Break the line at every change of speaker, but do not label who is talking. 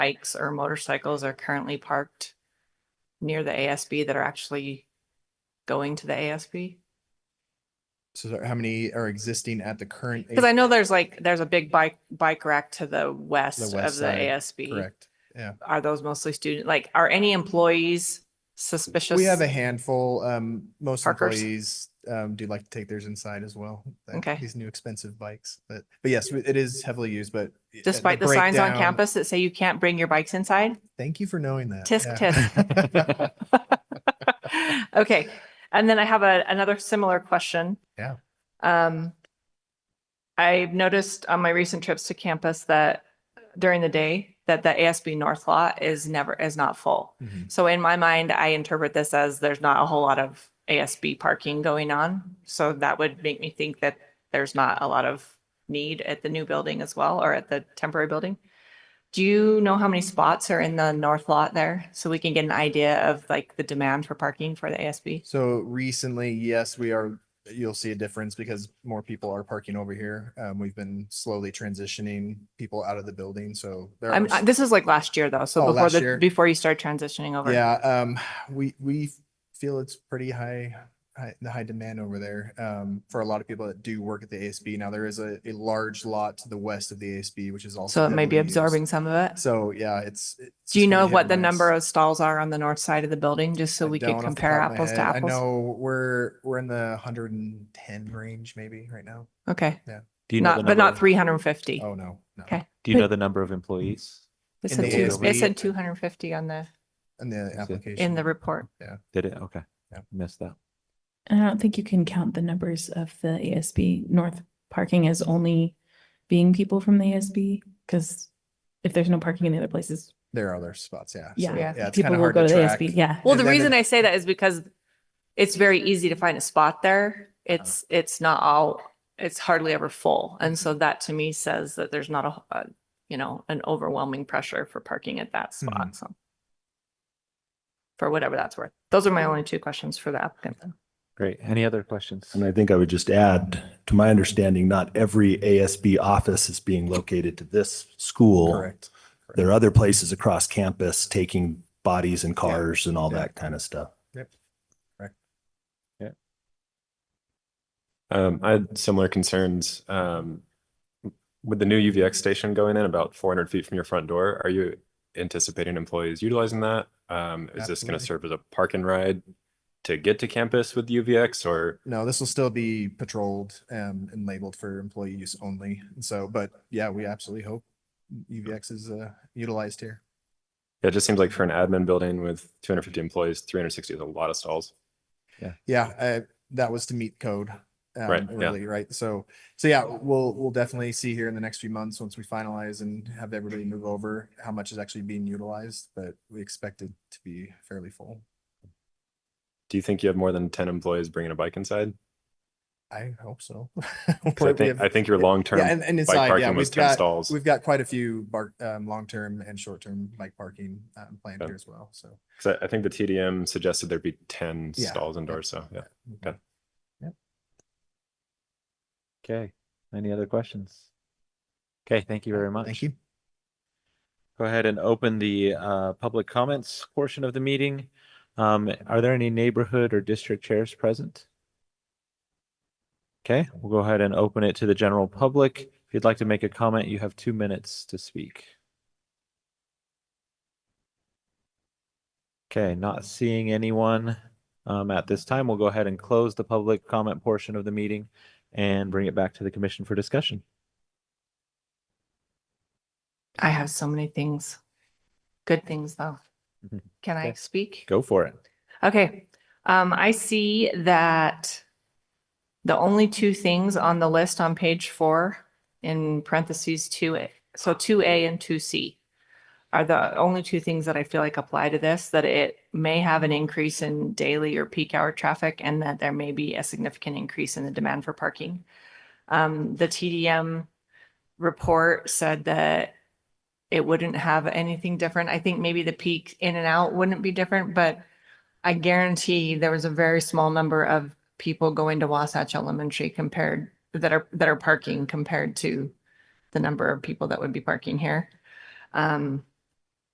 bikes or motorcycles are currently parked near the ASB that are actually going to the ASB?
So there- how many are existing at the current?
Because I
age-
know there's like, there's a big bike, bike rack to the west
west
of the
side,
ASB.
Correct.
Are those mostly student, like, are any employees suspicious?
We have a handful. Um, most
Parkers?
employees, um, do like to take theirs inside as well. like
Okay.
These new expensive bikes, but, but yes, it is heavily used, but. uh,
Despite the signs on
breakdown-
campus that say you can't bring your bikes inside?
Thank you for knowing that.
Tisk,
tisk.
Okay, and then I have a, another similar question.
Yeah.
Um, I've noticed on my recent trips to campus that during the day, that the ASB North lot is never, is not full.
Mhm.
So in my mind, I interpret this as there's not a whole lot of ASB parking going on. So that would make me think that there's not a lot of need at the new building as well, or at the temporary building. Do you know how many spots are in the north lot there? So we can get an idea of like the demand for parking for the ASB?
So recently, yes, we are, you'll see a difference because more people are parking over here. Um, we've been slowly transitioning people out of the building, so. there
I'm,
are
I- this is like last year though,
Oh,
so before
last
the,
year.
before you start transitioning over.
Yeah, um, we, we feel it's pretty high, high, the high demand over there, um, for a lot of people that do work at the ASB. Now, there is a, a large lot to the west of the ASB, which is also.
So it may be
heavily used.
absorbing some of it.
So, yeah, it's. it's
Do you
just gonna
know
be hit
what
or
the
miss.
number of stalls are on the north side of the building, just so
I
we
don't
could
off the
compare
top of my
apples to
head. I
apples?
know, we're, we're in the hundred and ten range maybe right now.
Okay,
Do you know the
not, but not
number-
three hundred and fifty.
Oh, no, no.
Okay.
Do you know the number of employees?
They
in
said
the
two, they
ASB.
said two hundred and fifty on the,
In the
it?
application.
in the report.
Did it? Okay.
Yeah.
Missed that.
And I don't think you can count the numbers of the ASB North parking as only being people from the ASB, because if there's no parking in the other places,
There are other spots, yeah. So,
Yeah.
Yeah.
Yeah, it's kind
people
of
will
hard
go
to
to the
track.
ASB, yeah.
Well,
And
the
then
reason
the-
I say that is because it's very easy to find a spot there. It's, it's not all, it's hardly ever full. And so that to me says that there's not a, a, you know, an overwhelming pressure for parking at that
Hmm.
spot, so. For whatever that's worth. Those are my only two questions for the applicant.
Great. Any other questions?
And I think I would just add, to my understanding, not every ASB office is being located to this school.
Correct.
There are other places across campus taking bodies and cars and all
Yeah.
that kind of stuff.
Um, I had similar concerns, um, with the new UVX station going in about four hundred feet from your front door. Are you anticipating employees utilizing that? Um, is this
Absolutely.
gonna serve as a park and ride to get to campus with UVX or?
No, this will still be patrolled um, and labeled for employee use only. And so, but yeah, we absolutely hope UVX is uh, utilized here.
Yeah, It just seems like for an admin building with two hundred fifty employees, three hundred sixty is a lot of stalls.
Yeah, uh, that was to meet code. um,
Right, yeah.
Really, right? So, so yeah, we'll, we'll definitely see here in the next few months, once we finalize and have everybody move over, how much is actually being utilized, but we expect it to be fairly full.
Do you think you have more than ten employees bringing a bike inside?
I hope so.
'Cause I think, I think your long-term
Yeah, and, and
bike
inside, yeah,
parking was
we've
ten
got,
stalls.
We've got quite a few bar, um, long-term and short-term bike parking, um, planned
Okay.
here as well, so.
'Cause I, I think the TDM suggested there'd be ten
Yeah,
stalls indoors, so, yeah.
Mhm.
Okay.
Okay. Any other questions? Okay. Thank you very much.
Thank you.
Go ahead and open the uh, public comments portion of the meeting. Um, Are there any neighborhood or district chairs present? Okay, we'll go ahead and open it to the general public. If you'd like to make a comment, you have two minutes to speak. Okay, not seeing anyone um, at this time. We'll go ahead and close the public comment portion of the meeting and bring it back to the commission for discussion.
I have so many things, good things though.
Mm-hmm.
Mhm.
Can I
Okay.
speak?
Go for it.
Okay, um, I see that the only two things on the list on page four in parentheses two A, so two A and two C are the only two things that I feel like apply to this, that it may have an increase in daily or peak hour traffic and that there may be a significant increase in the demand for parking. Um, the TDM report said that it wouldn't have anything different. I think maybe the peak in and out wouldn't be different, but I guarantee there was a very small number of people going to Wasatch Elementary compared, that are, that are parking compared to the number of people that would be parking here. Um,